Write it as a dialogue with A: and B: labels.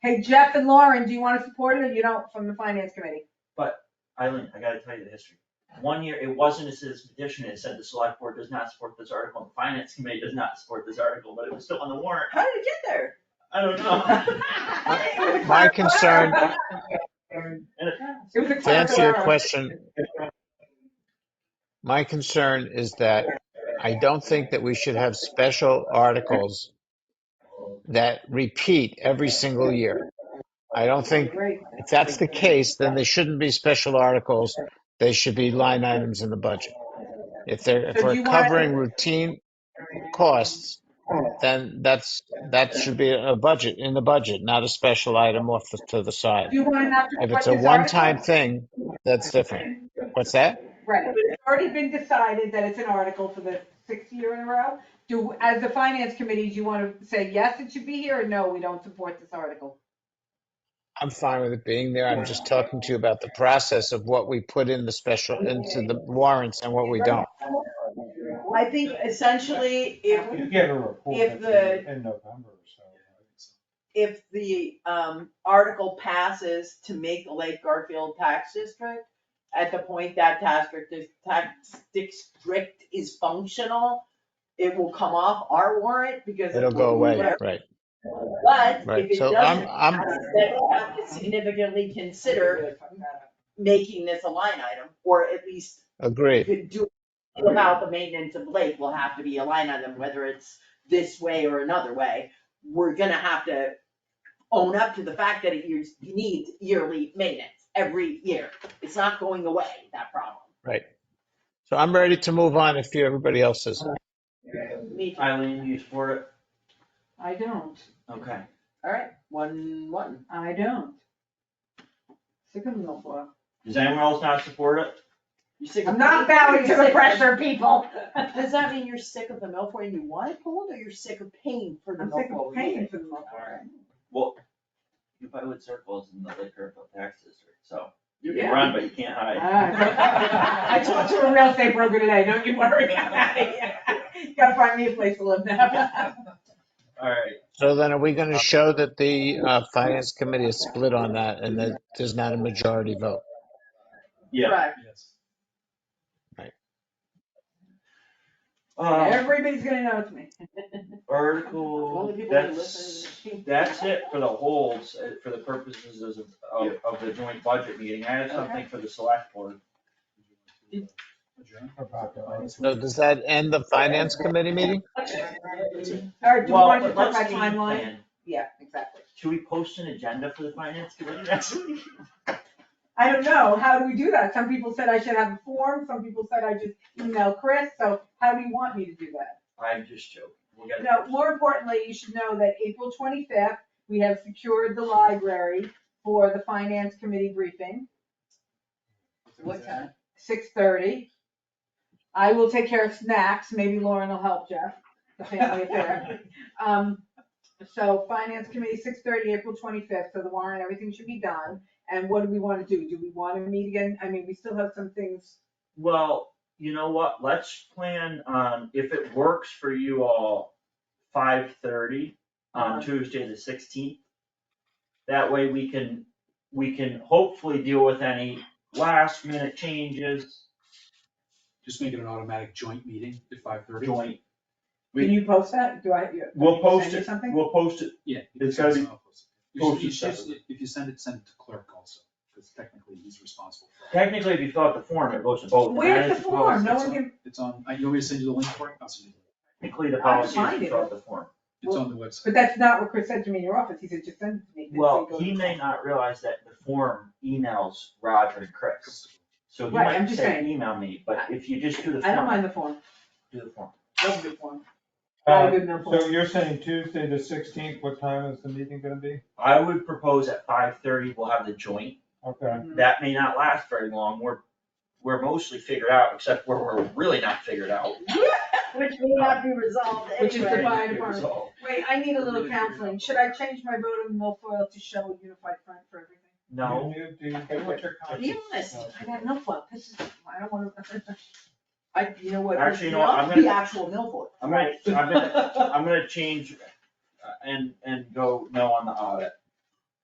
A: Hey, Jeff and Lauren, do you wanna support it or you don't, from the finance committee?
B: Eileen, I gotta tell you the history. One year, it wasn't a citizen petition, it said the select board does not support this article, the finance committee does not support this article, but it was still on the warrant.
A: How did it get there?
B: I don't know.
C: My concern-
B: And it-
A: It was a clerical
C: To answer your
A: error.
C: question, my concern is that I don't think that we should have special articles that repeat every single year. I don't think,
A: Great.
C: if that's the case, then they shouldn't be special articles. They should be line items in the budget. If they're, if
A: So do
C: we're
A: you wanna-
C: covering routine costs, then that's, that should be a budget, in the budget, not a special item off the- to the side.
A: Do you wanna not
C: If
A: support
C: it's
A: this
C: a
A: article?
C: one-time thing, that's different. What's that?
A: Right, but it's already been decided that it's an article for the sixth year in a row. Do, as the finance committee, do you wanna say, yes, it should be here, or no, we don't support this article?
C: I'm fine with it being there. I'm just talking to you about the process of what we put in the special, into the warrants and what we don't.
D: I think essentially, if,
E: You get a report
D: if
E: at
D: the-
E: the- in November or so.
D: if the, um, article passes to make the Lake Garfield tax district, at the point that tax district, is- tax district is functional, it will come off our warrant because.
C: It'll go away, right,
D: But if
C: right.
D: it
C: So um, I'm,
D: doesn't,
C: I'm,
D: then we have to significantly consider making this a line item, or at least
C: agreed.
D: could do about the maintenance of lake will have to be a line item, whether it's this way or another way. We're gonna have to own up to the fact that it years- needs yearly maintenance every year. It's not going away, that problem.
C: So I'm ready to move on if you, everybody else is.
D: Me too.
B: Eileen, you support it?
A: I don't,
B: Okay.
D: Alright, one, one.
A: I don't. Sick of them all, boy.
B: Does anyone else not support it?
D: You sick of-
A: I'm not bowing to the pressure, people.
D: Does that mean you're sick of the milfoil and you want it pulled, or you're sick of paying for the
A: I'm sick
D: milfoil?
A: of paying for them all.
B: Well, you buy wood circles in the liquor tax district, so you
A: Yeah. Ah.
B: can run, but you can't hide.
A: I talked to a real estate broker today, don't you worry, I'm out of here. Gotta find me a place to live now.
B: Alright,
C: So then are we going to show that the uh, finance committee is split on that and that there's not a majority vote?
B: yeah.
D: Correct.
E: Yes.
B: Uh,
A: Everybody's gonna know it's me.
B: article,
D: Only people who
B: that's,
D: listen.
B: that's it for the holds, uh, for the purposes of, of, of the joint budget meeting. I have something for the select board.
E: About the lights.
C: So does that end the finance committee meeting?
A: All right, do you
B: Well,
A: want to put
B: let's
A: my
B: game
A: timeline?
B: plan.
A: Yeah, exactly.
B: Should we post an agenda for the finance committee next week?
A: I don't know, how do we do that? Some people said I should have a form, some people said I just email Chris, so how do you want me to do that?
B: I'm just joking. We'll get it.
A: No, more importantly, you should know that April twenty-fifth, we have secured the library for the finance committee briefing,
D: What time?
A: six thirty. I will take care of snacks, maybe Lauren will help Jeff, the family affair. Um, so finance committee, six thirty, April twenty-fifth, so the warrant, everything should be done. And what do we wanna do? Do we wanna meet again? I mean, we still have some things,
B: Well, you know what, let's plan on, if it works for you all, five thirty on
A: Uh-huh.
B: Tuesday the sixteenth. That way we can, we can hopefully deal with any last minute changes,
F: Just make it an automatic joint meeting at five thirty.
B: joint, We-
A: can you post that? Do I? you-
B: we'll
A: can you
B: post
A: send me
B: it,
A: something?
B: we'll post it,
F: Yeah.
B: It's gotta be
F: You should- you
B: posted
F: should-
B: separately.
F: If you send it, send it to clerk also, because technically he's responsible for it.
B: technically, if you fill out the form, it goes to both. and
A: Where's
B: that
A: the
B: is
A: form?
F: Well, it's-
A: No
F: it's
A: one
F: on-
A: can-
F: It's on, uh, you want me to send you the link for it? I'll send you the link.
B: Technically, the
A: I
B: policy is
A: find
B: to
A: it.
B: fill out the form.
F: It's on the website.
A: But that's not what Chris said to me in your office, he said just send it to me. This
B: Well,
A: way it goes-
B: he may not realize that the form emails Roger and Chris, so he
A: Right,
B: might
A: I'm just
B: say,
A: saying.
B: email me, but if you just do the
A: I don't
B: form,
A: mind the form,
B: do the form.
A: that's a good form. Not a
E: Uh,
A: good enough
E: So
A: form.
E: you're saying Tuesday the sixteenth, what time is the meeting gonna be?
B: I would propose at five thirty, we'll have the joint.
E: Okay.
A: Mm-hmm.
B: That may not last very long. We're, we're mostly figured out, except where we're really not figured out.
D: Which may not be resolved
A: Which is the
D: anyway.
A: fire
B: It was
A: department.
B: all-
A: Wait, I need a little counseling, should I change my vote on the milfoil to show a unified front for everything?
B: No,
E: Do you, do you get what your conscience?
D: Be honest,
A: I got milfoil, this is, I don't wanna.
D: I, you know what?
B: Actually, you know what, I'm
D: The
B: gonna-
D: actual milfoil.
B: I'm gonna, I'm gonna, I'm gonna change uh, and, and go no on the audit.